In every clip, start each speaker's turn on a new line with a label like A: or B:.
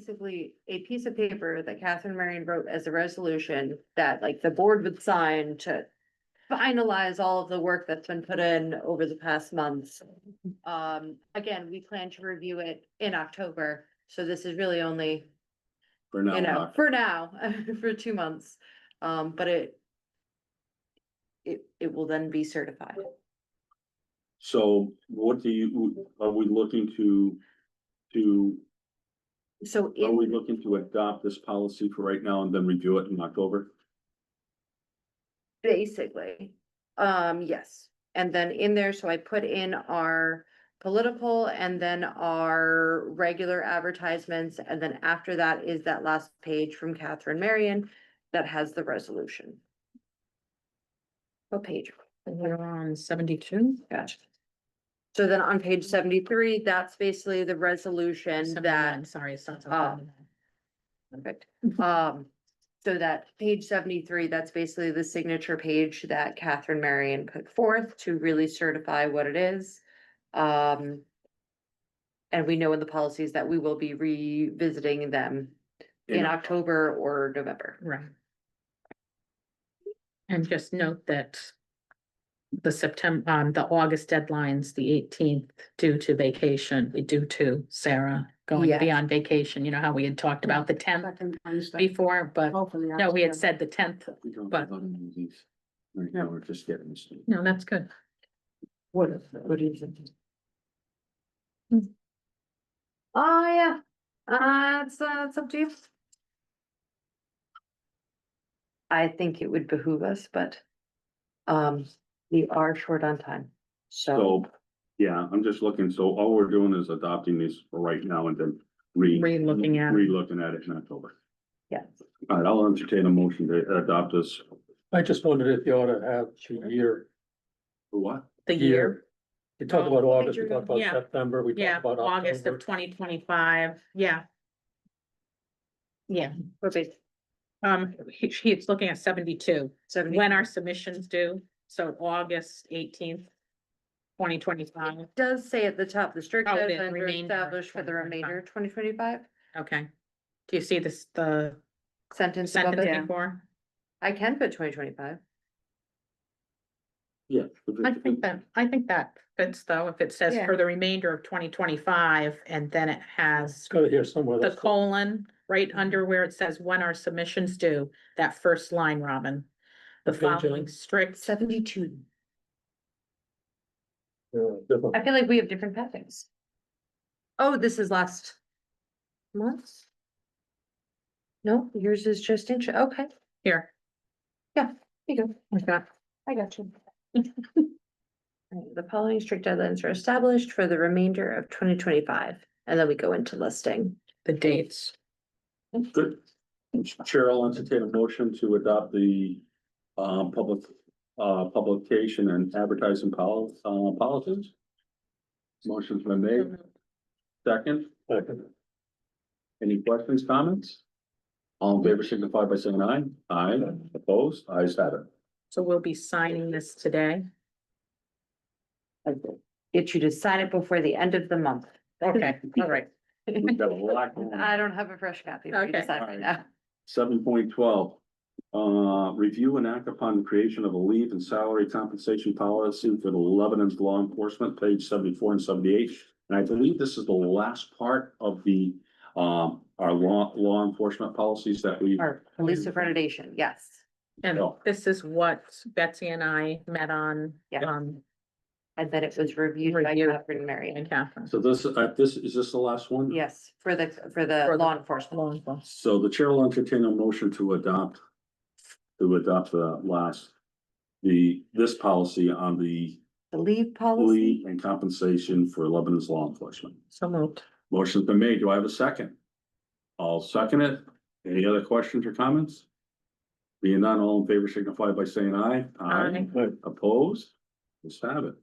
A: basically a piece of paper that Catherine Marion wrote as a resolution that like the board would sign to finalize all of the work that's been put in over the past months. Um, again, we plan to review it in October, so this is really only,
B: For
A: you know,
B: now,
A: for now, for two months. Um, but it it, it will then be certified.
B: so what do you, are we looking to, to,
A: So
B: are we
A: in,
B: looking to adopt this policy for right now and then review it in October?
A: basically, um, yes. And then in there, so I put in our political and then our regular advertisements. And then after that is that last page from Catherine Marion that has the resolution. What page?
C: We're on seventy-two?
A: Gotcha. So then on page seventy-three, that's basally the resolution that,
C: Sorry, it's not. so
A: uh,
C: bad.
A: perfect. Um, so that page seventy-three, that's basically the signature page that Catherine Marion put forth to really certify what it is. Um. And we know in the policies that we will be revisiting them in
B: Yeah.
A: October or November.
C: Right. And just note that the September, um, the August deadlines, the eighteenth, due to vacation, due to Sarah going
A: Yeah.
C: beyond vacation, you know how we had talked about the tenth
D: Second Wednesday.
C: before, but no, we had said the tenth.
B: We don't
C: But-
B: have any of these. Right now, we're just getting this.
C: No, that's good.
D: What is, what is it?
A: Oh, yeah. Uh, it's, uh, it's up to you. I think it would behoove us, but, um, we are short on time, so.
B: So, yeah, I'm just looking, so all we're doing is adopting these for right now and then re.
C: Re-looking at it.
B: Re-looking at it in October.
A: Yeah.
B: All right, I'll entertain a motion to adopt this.
E: I just wondered if you ought to have the year.
B: What?
C: The year, Um,
E: You talked about August, we
A: Andrew,
E: talked about
C: yeah.
E: September, we
C: yeah,
E: talked about
C: August
E: October.
C: of twenty twenty-five, yeah. Yeah,
A: We're basically
C: um, he, he's looking at seventy-two.
A: seventy.
C: when our submissions due, so August eighteenth, twenty twenty-five,
A: It Does say at the top, the strict
C: Oh, the
A: deadlines are
C: remainder of
A: established for the
C: 2025.
A: remainder of twenty twenty-five
C: okay. Do you see this, the
A: sentence above
C: sentence
A: it.
C: before?
A: I can put twenty twenty-five.
B: Yeah.
C: I think that, I think that fits though, if it says
A: Yeah.
C: for the remainder of twenty twenty-five, and then it has
E: It's gotta hear somewhere.
C: the
E: that's-
C: colon right under where it says when our submissions due, that first line, Robin. The
E: Okay, Jen.
C: following strict,
A: Seventy-two.
E: yeah, different.
A: I feel like we have different pathings. Oh, this is last month? No, yours is just inch, okay,
C: here,
A: there you go.
C: we've got
A: I got you. Alright, The following strict deadlines are established for the remainder of twenty twenty-five, and then we go into listing.
C: the dates.
B: Good. Chair, I'll entertain a motion to adopt the um public uh publication and advertising pol- uh policies. Motion's been
C: Mm-hmm.
B: made. Second,
E: Second.
B: any questions, comments? All in favor signify by saying aye. Aye, opposed, ayes have it.
C: So we'll be signing this today,
A: Get you to sign it before the end of the month.
C: okay, all right.
B: We've got a lot going on.
A: I don't have a fresh copy. for you to
C: Okay.
A: sign right now.
B: Seven point twelve, uh, review and act upon the creation of a leave and salary compensation policy for the Lebanon's law enforcement, page seventy-four and seventy-eight. And I believe this is the last part of the, um, our law, law enforcement policies that we,
A: Or police accreditation, yes.
C: And
B: Oh.
C: this is what Betsy and I met on,
A: Yeah.
C: um,
A: And then it was reviewed by
C: Reviewed.
A: Catherine Marion.
C: and Catherine.
B: so this, uh, this, is this the last one?
A: Yes, for the, for the
C: Mm. For the-
A: law enforcement.
C: Law enforcement.
B: So the chair will entertain a motion to adopt, to adopt the last, the, this policy on the
A: The leave policy,
B: leave and compensation for Lebanon's law enforcement.
C: So moved.
B: Motion's been made. Do I have a second? I'll second it. Any other questions or comments? Being none, all in favor signify by saying aye.
E: Aye.
B: Opposed? Let's have it.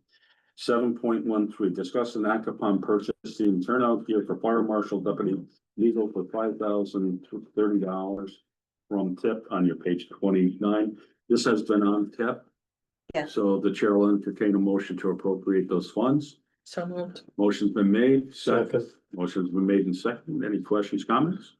B: Seven point one three, discuss and act upon purchasing turnout gear for fire marshal deputy legal for five thousand thirty dollars from tip on your page twenty-nine. This has been on tip.
A: Yeah.
B: So the chair will entertain a motion to appropriate those funds.
C: So moved.
B: Motion's been made,
E: So
B: second, motion's been made and second. Any questions, comments?